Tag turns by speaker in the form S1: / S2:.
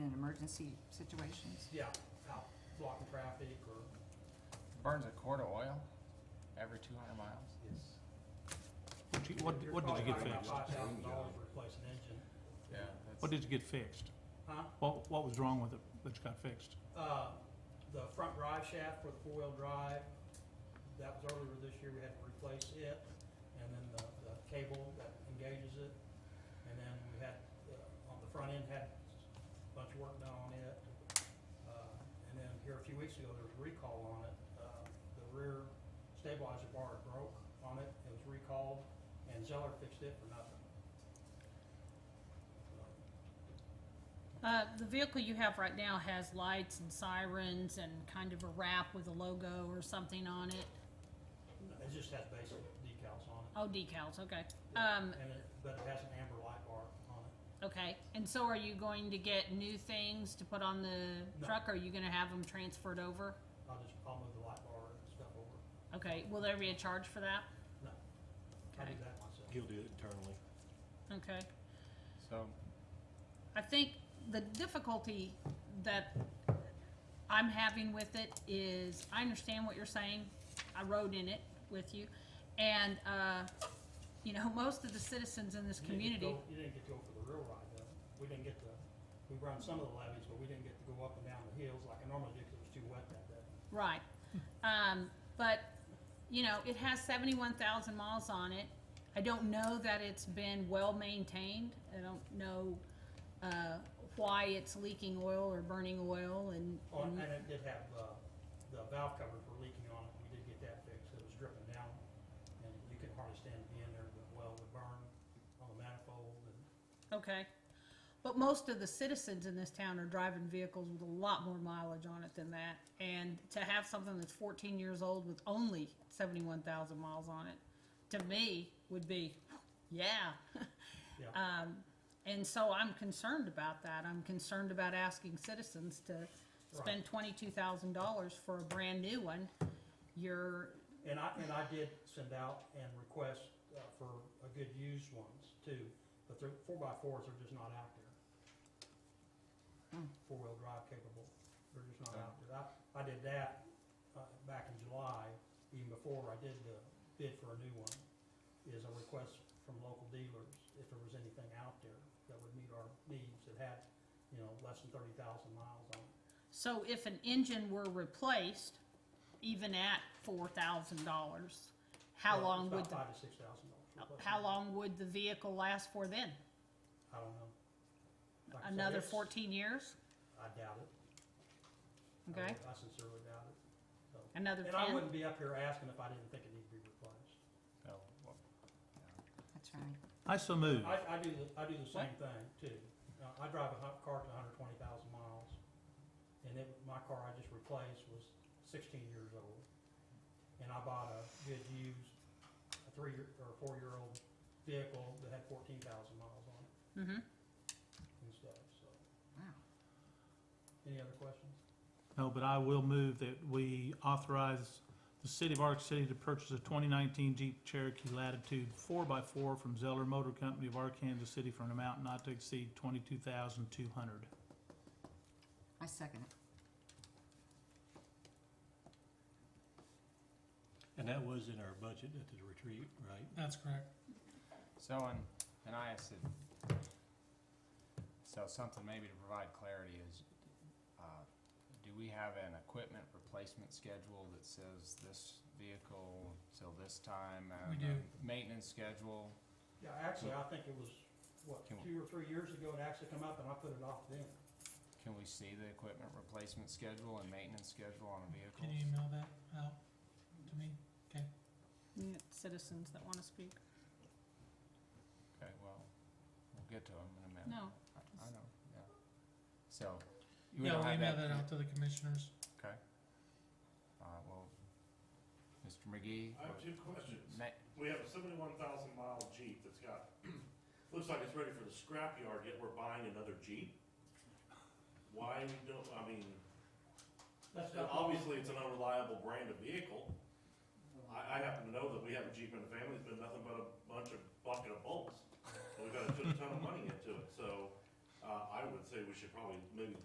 S1: emergency situations.
S2: Yeah, out blocking traffic or,
S3: Burns a quart of oil every two hundred miles.
S2: yes.
S4: What you- What,
S2: You're
S4: what did you get
S2: probably talking about
S4: fixed?
S2: Five thousand dollars to replace an engine,
S3: Yeah.
S4: What did you get fixed?
S2: huh?
S4: What, what was wrong with it that you got fixed?
S2: Uh, the front drive shaft for the four-wheel drive, that was earlier this year, we had to replace it, and then the, the cable that engages it. And then we had, uh, on the front end, had a bunch of work done on it. Uh, and then here a few weeks ago, there was a recall on it, uh, the rear stabilizer bar broke on it, it was recalled, and Zeller fixed it for nothing. So,
S5: Uh, the vehicle you have right now has lights and sirens and kind of a wrap with a logo or something on it.
S2: It just has basic decals on it.
S5: Oh, decals, okay.
S2: Yeah,
S5: Um,
S2: And it, but it has an amber light bar on it.
S5: okay, and so are you going to get new things to put on the
S2: No.
S5: truck? Or are you gonna have them transferred over?
S2: I'll just, I'll move the light bar and stuff over.
S5: Okay, will there be a charge for that?
S2: No, I do
S5: Okay.
S2: that myself.
S6: He'll do it internally.
S5: Okay.
S3: So,
S5: I think the difficulty that I'm having with it is, I understand what you're saying, I rode in it with you, and, uh, you know, most of the citizens in this
S2: You didn't get to
S5: community,
S2: go- You didn't get to go for the real ride though. We didn't get to, we run some of the levees, but we didn't get to go up and down the hills like I normally do because it was too wet that day.
S5: right, um, but, you know, it has seventy-one thousand miles on it. I don't know that it's been well-maintained, I don't know, uh, why it's leaking oil or burning oil and,
S2: Oh, and
S5: and-
S2: and it did have, uh, the valve covers were leaking on it. We did get that fixed. It was dripping down. And you could hardly stand to be in there, but well, would burn on the manifold and
S5: Okay. But most of the citizens in this town are driving vehicles with a lot more mileage on it than that. And to have something that's fourteen years old with only seventy-one thousand miles on it, to me, would be, yeah.
S2: Yeah.
S5: Um, and so I'm concerned about that. I'm concerned about asking citizens to spend twenty-two thousand dollars for a brand-new one. You're,
S2: And I, and I did send out and request uh, for a good used ones too, but they're, four by fours are just not out there.
S5: Hmm.
S2: Four-wheel drive capable, they're just not out there. I, I did that, uh, back in July, even before I did the bid for a new one, is a request from local dealers if there was anything out there that would meet our needs that had, you know, less than thirty thousand miles on it.
S5: So if an engine were replaced, even at four thousand dollars, how
S2: Well,
S5: long
S2: it's
S5: would
S2: about Five
S5: the,
S2: to six thousand dollars.
S5: how long would the vehicle last for then?
S2: I don't know. Like I said,
S5: Another
S2: it's-
S5: fourteen years?
S2: I doubt it. I
S5: Okay,
S2: would- I sincerely doubt it. So-
S5: another
S2: And I
S5: ten?
S2: wouldn't be up here asking if I didn't think it needed to be replaced.
S3: so, well,
S1: That's right.
S4: I so moved.
S2: I, I do, the- I do the same thing too. Uh, I drive a hu- car to hundred twenty thousand miles. And it, my car I just replaced was sixteen years old. And I bought a good used, a three year, or four-year-old vehicle that had fourteen thousand miles on it
S5: Mm-hmm,
S2: and stuff, so.
S1: Wow.
S2: Any other questions?
S4: No, but I will move that we authorize the city of Arc City to purchase a twenty nineteen Jeep Cherokee Latitude four x four from Zeller Motor Company of Arkansas City for an amount not to exceed twenty-two thousand two hundred.
S1: I second it.
S6: And that was in our budget at the retreat, right?
S7: That's correct.
S3: so in, in ISID, so something maybe to provide clarity is, uh, do we have an equipment replacement schedule that says this vehicle till this time? and
S7: We do.
S3: a Maintenance schedule?
S2: Yeah, actually, I think it was, what,
S3: Can we-
S2: two or three years ago, it actually come up and I put it off then.
S3: Can we see the equipment replacement schedule and maintenance schedule on a vehicle?
S7: Can you email that out to me?
S5: citizens that wanna speak.
S3: Okay, well, we'll get to them in a minute.
S5: No,
S3: I- I know, yeah. So. we
S7: Yeah,
S3: don't
S7: we'll
S3: have
S7: email that out to the commissioners.
S3: Okay. Uh, well, Mr. McGee?
S8: I have two questions.
S3: Ma-
S8: We have a seventy-one thousand mile Jeep that's got, looks like it's ready for the scrapyard, yet we're buying another Jeep? Why we don't, I mean,
S2: That's not-
S8: obviously it's an unreliable brand of vehicle. I, I happen to know that we have a Jeep in the family, it's been nothing but a bunch of bucket of bolts. But we've got a ton ton of money into it, so, uh, I would say we should probably maybe